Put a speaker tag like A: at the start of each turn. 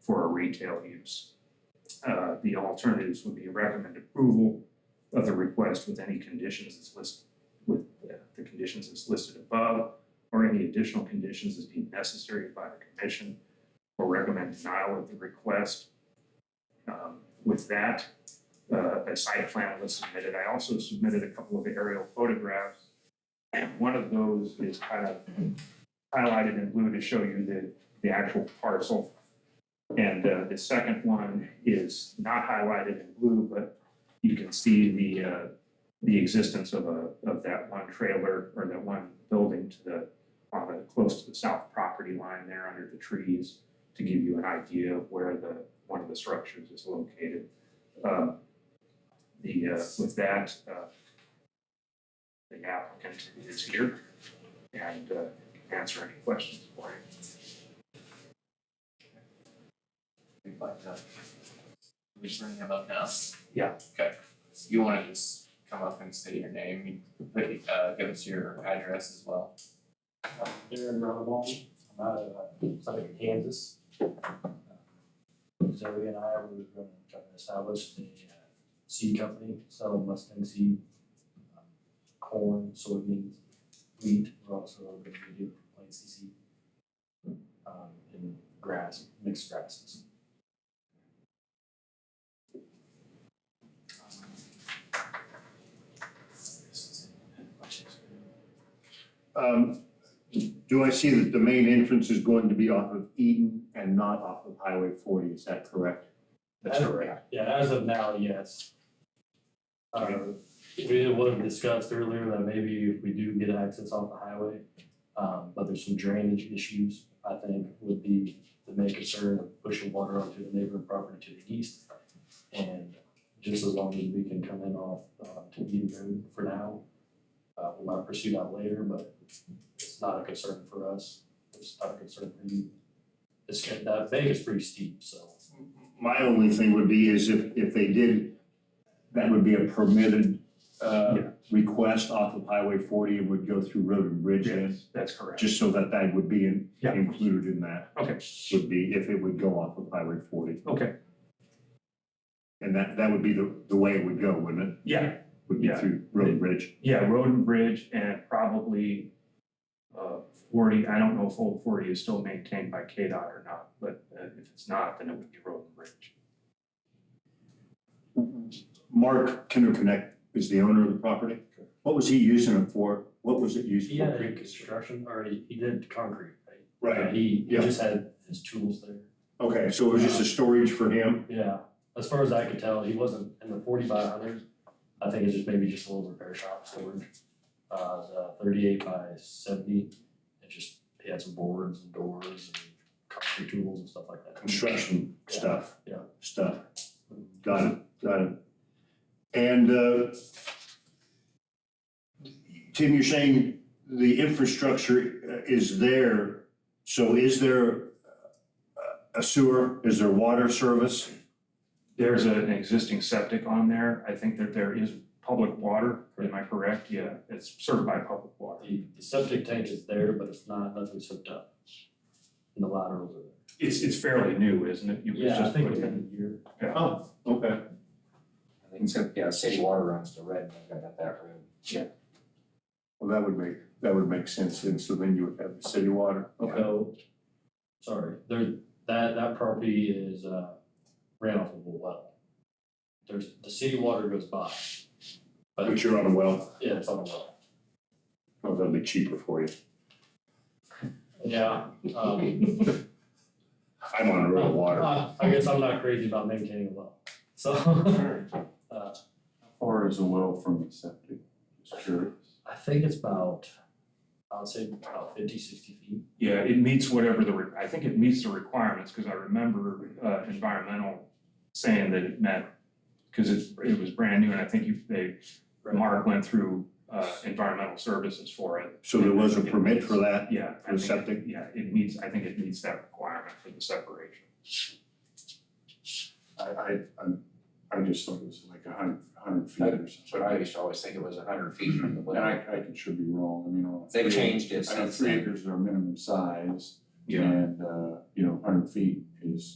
A: for a retail use. Uh, the alternatives would be recommend approval of the request with any conditions as listed, with uh, the conditions as listed above, or any additional conditions as deemed necessary by the commission, or recommend denial of the request. Um, with that, uh, a site plan was submitted. I also submitted a couple of aerial photographs. And one of those is kind of highlighted in blue to show you the, the actual parcel. And uh, the second one is not highlighted in blue, but you can see the, uh, the existence of a, of that one trailer or that one building to the, on the, close to the south property line there under the trees to give you an idea of where the, one of the structures is located. Um, The, uh, with that, uh, the applicant is here and uh, answer any questions for you.
B: We'd like to. We should bring him up now?
A: Yeah.
B: Okay, you wanna just come up and say your name, you put, uh, give us your address as well.
C: Darren Runnable, I'm out of uh, Southern Kansas. Uh, Zoe and I were gonna try to establish a uh, seed company, sell Mustang seed, um, corn, soybeans, wheat, we're also gonna do planting seed. Um, and grass, mixed grasses. Um,
D: Um, do I see that the main entrance is going to be off of Eden and not off of Highway forty, is that correct?
A: That's
C: As-
A: correct.
C: Yeah, as of now, yes. Uh, we it was discussed earlier that maybe if we do get access off the highway, um, but there's some drainage issues, I think, would be the main concern of pushing water onto the neighboring property to the east. And just as long as we can come in off, uh, to Eden Road for now, uh, we might pursue that later, but it's not a concern for us, it's not a concern for you. It's, that bank is pretty steep, so.
D: My only thing would be is if, if they did, that would be a permitted, uh,
A: Yeah.
D: request off of Highway forty and would go through Road and Bridge then?
A: Yes, that's correct.
D: Just so that that would be in-
A: Yeah.
D: included in that,
A: Okay,
D: would be if it would go off of Highway forty.
A: okay,
D: And that, that would be the, the way it would go, wouldn't it?
A: yeah,
D: Would be
A: Yeah.
D: through Road and Bridge.
A: yeah, road and bridge and probably uh, forty, I don't know if old forty is still maintained by KDOT or not, but uh, if it's not, then it would be road and bridge.
D: Mark Kinderconnect is the owner of the property. What was he using it for? What was it used for?
C: He had a construction, or he, he did concrete, right?
D: Right,
C: He, he
D: yeah.
C: just had his tools there.
D: okay, so it was just a storage for him?
C: Yeah, as far as I could tell, he wasn't in the forty by hundred. I think it's just maybe just a little repair shop storage. Uh, the thirty-eight by seventy, it just, he had some boards and doors and concrete tools and stuff like that.
D: Mm-hmm. Construction stuff?
C: Yeah.
D: Stuff, got it, got it. And, uh, Tim, you're saying the infrastructure uh, is there, so is there uh, a sewer? Is there water service?
A: There's a- an existing septic on there, I think that there is public water, am I correct? Yeah, it's served by public water.
C: The, the septic tank is there, but it's not, nothing's hooked up. And the laterals are there.
A: It's, it's fairly new, isn't it? You was
C: Yeah, I
A: just
C: think
A: put in.
C: within a year.
D: Oh, okay.
E: I think so, yeah, city water runs to Red, I've got that road.
D: Well, that would make, that would make sense, and so then you would have the city water.
C: So, sorry, there, that, that property is, uh, ran off of a well. There's, the city water goes by. But,
D: But you're on a well,
C: yeah, it's on a well.
D: oh, that'd be cheaper for you.
C: Yeah, um.
D: I'm on a road of water.
C: I I guess I'm not crazy about maintaining a well, so. uh,
F: far is a well from the septic? Just curious.
C: I think it's about, I would say about fifty, sixty feet.
A: Yeah, it meets whatever the, re- I think it meets the requirements, because I remember uh, environmental saying that it met, because it's, it was brand new, and I think you, they, Mark went through uh, environmental services for it.
D: So there was a permit for that?
A: Yeah. I think
D: For
A: it-
D: septic?
A: Yeah, it meets, I think it meets that requirement for the separation.
F: I, I, I'm, I just thought it was like a hundred, hundred feet
E: That-
F: or
E: But I
F: something.
E: used to always think it was hundred feet from the
F: And
E: lake.
F: I, I could, should be wrong, I mean. on
E: They've
F: three-
E: changed it
F: I know
E: since
F: three
E: then.
F: acres are minimum size and, uh, you know, hundred feet is